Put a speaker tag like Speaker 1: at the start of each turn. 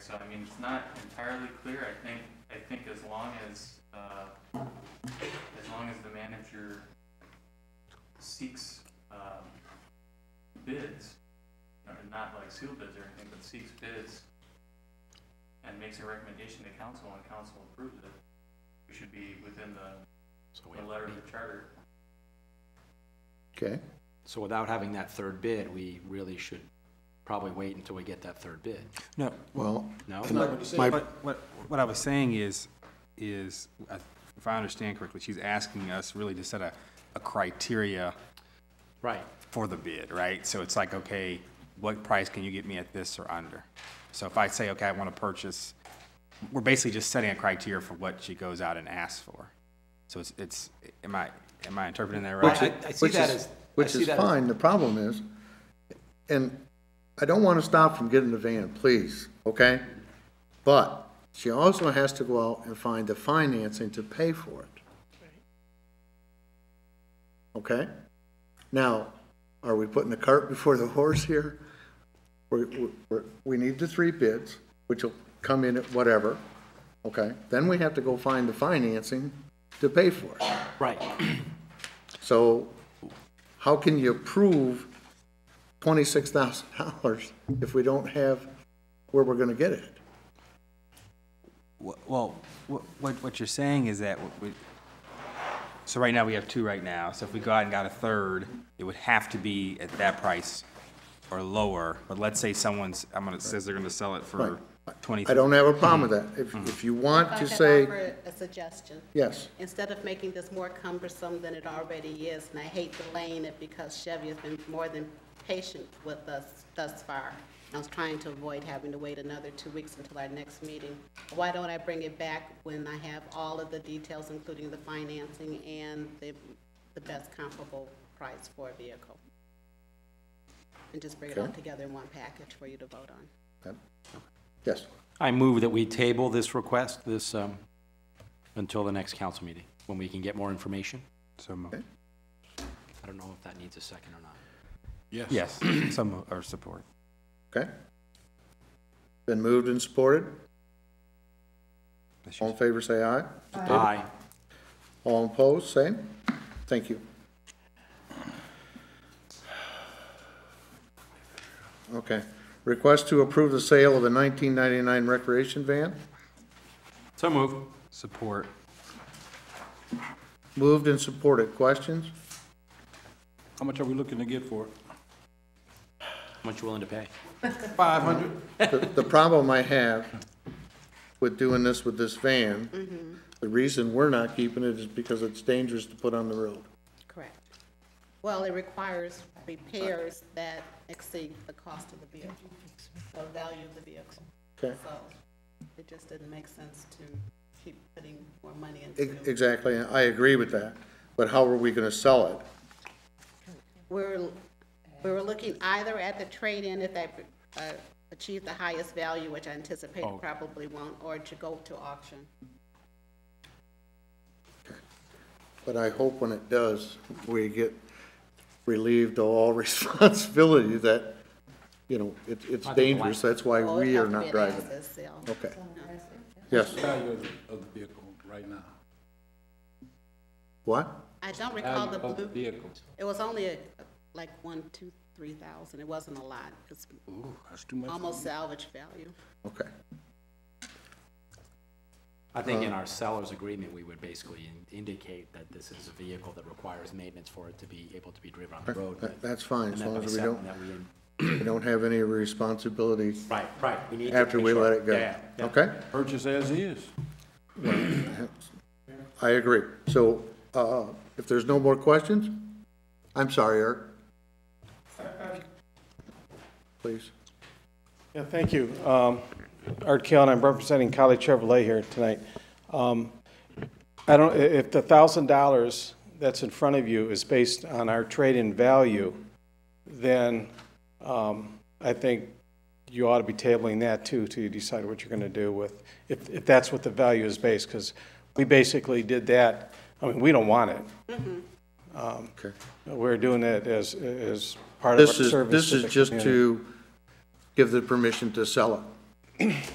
Speaker 1: So I mean, it's not entirely clear. I think, I think as long as, uh, as long as the manager seeks, um, bids, or not like seal bids or anything, but seeks bids and makes a recommendation to council and council approves it, we should be within the,
Speaker 2: So
Speaker 1: the
Speaker 2: we,
Speaker 1: letter of the charter.
Speaker 3: Okay,
Speaker 4: So without having that third bid, we really should probably wait until we get that third bid,
Speaker 5: No,
Speaker 3: well,
Speaker 4: no?
Speaker 3: and my,
Speaker 5: what, what, what I was saying is, is, uh, if I understand correctly, she's asking us really to set a, a criteria
Speaker 4: Right,
Speaker 5: for the bid, right? So it's like, okay, what price can you get me at this or under? So if I say, okay, I want to purchase, we're basically just setting a criteria for what she goes out and asks for. So it's, it's, am I, am I interpreting that
Speaker 3: which
Speaker 5: right?
Speaker 4: I-
Speaker 3: is,
Speaker 4: I- I see
Speaker 3: which
Speaker 4: that
Speaker 3: is,
Speaker 4: as- I
Speaker 3: which
Speaker 4: see
Speaker 3: is
Speaker 4: that as-
Speaker 3: fine, the problem is, and I don't wanna stop from getting the van, please, okay? But she also has to go out and find the financing to pay for it. Okay? Now, are we putting the cart before the horse here? We, we, we need the three bids, which will come in at whatever, okay? Then we have to go find the financing to pay for it.
Speaker 4: right.
Speaker 3: So how can you approve twenty-six thousand dollars if we don't have where we're gonna get it?
Speaker 5: Wh- Well, wh- what, what you're saying is that, w- we- so right now, we have two right now, so if we go out and got a third, it would have to be at that price or lower, but let's say someone's, I'm gonna, says they're gonna sell it for twenty.
Speaker 3: I don't have a problem with that. If, if you want to
Speaker 6: If I could
Speaker 3: say,
Speaker 6: offer a suggestion,
Speaker 3: yes,
Speaker 6: instead of making this more cumbersome than it already is, and I hate delaying it because Chevy has been more than patient with us thus far. I was trying to avoid having to wait another two weeks until our next meeting. Why don't I bring it back when I have all of the details, including the financing and the, the best comparable price for a vehicle? And just bring it all
Speaker 3: Okay.
Speaker 6: together in one package for you to vote on.
Speaker 3: yes,
Speaker 4: I move that we table this request, this, um, until the next council meeting, when we can get more information.
Speaker 5: So mo-
Speaker 3: Okay.
Speaker 4: I don't know if that needs a second or not.
Speaker 2: yes,
Speaker 5: Yes, some are support.
Speaker 3: okay? Been moved and supported.
Speaker 5: That's
Speaker 3: All
Speaker 5: your-
Speaker 3: in favor, say aye.
Speaker 4: Aye.
Speaker 3: All opposed, same. Thank you. Okay. Request to approve the sale of the nineteen ninety-nine recreation van.
Speaker 4: So move.
Speaker 5: Support.
Speaker 3: Moved and supported. Questions?
Speaker 2: How much are we looking to get for it?
Speaker 4: How much you willing to pay?
Speaker 2: Five hundred?
Speaker 3: The the problem I have with doing this with this
Speaker 6: Mm-hmm.
Speaker 3: van, the reason we're not keeping it is because it's dangerous to put on the road.
Speaker 6: Correct. Well, it requires repairs that exceed the cost of the vehicle, the value of the vehicle.
Speaker 3: Okay?
Speaker 6: So it just didn't make sense to keep putting more money into
Speaker 3: Ex-
Speaker 6: it.
Speaker 3: E, Exactly, I agree with that, but how are we gonna sell it?
Speaker 6: We're, we were looking either at the trade-in if they uh, achieve the highest value, which I anticipate
Speaker 2: Oh.
Speaker 6: it probably won't, or to go to auction.
Speaker 3: But I hope when it does, we get relieved of all responsibility that, you know, it, it's dangerous, that's why
Speaker 6: Well, it'd
Speaker 3: we
Speaker 6: have
Speaker 3: are
Speaker 6: to be
Speaker 3: not
Speaker 6: an
Speaker 3: driving it.
Speaker 6: asset sale.
Speaker 3: Okay. Yes,
Speaker 2: Value of, the- of the vehicle right now.
Speaker 3: what?
Speaker 6: I don't recall
Speaker 2: Value
Speaker 6: the
Speaker 2: of the
Speaker 6: blue.
Speaker 2: vehicle.
Speaker 6: It was only a- like one, two, three thousand. It wasn't a lot. It's
Speaker 2: Ooh, that's too much.
Speaker 6: almost salvage value.
Speaker 3: Okay,
Speaker 4: I think
Speaker 3: Uh,
Speaker 4: in our seller's agreement, we would basically in- indicate that this is a vehicle that requires maintenance for it to be able to be driven on the road.
Speaker 3: That- that's fine,
Speaker 4: And
Speaker 3: as
Speaker 4: that
Speaker 3: long
Speaker 4: by
Speaker 3: as we don't,
Speaker 4: second that we in-
Speaker 3: we don't have any responsibility
Speaker 4: Right, right. need to
Speaker 3: after
Speaker 4: make
Speaker 3: we
Speaker 4: sure.
Speaker 3: let it go.
Speaker 4: Yeah, yeah.
Speaker 3: Okay?
Speaker 2: Purchase as is.
Speaker 3: I agree. So, uh, if there's no more questions, I'm sorry, Eric. Please.
Speaker 7: Yeah, thank you. Um, Art Keon, I'm representing Colley Chevrolet here tonight. Um, I don't, i- if the thousand dollars that's in front of you is based on our trade-in value, then um, I think you ought to be tabling that too, to decide what you're going to do with, if, if that's what the value is based, because we basically did that. I mean, we don't want it.
Speaker 3: Okay.
Speaker 7: We're doing it as, as part of our
Speaker 3: This is, this
Speaker 7: service. to
Speaker 3: is
Speaker 7: the
Speaker 3: just
Speaker 7: community.
Speaker 3: to give the permission to sell it.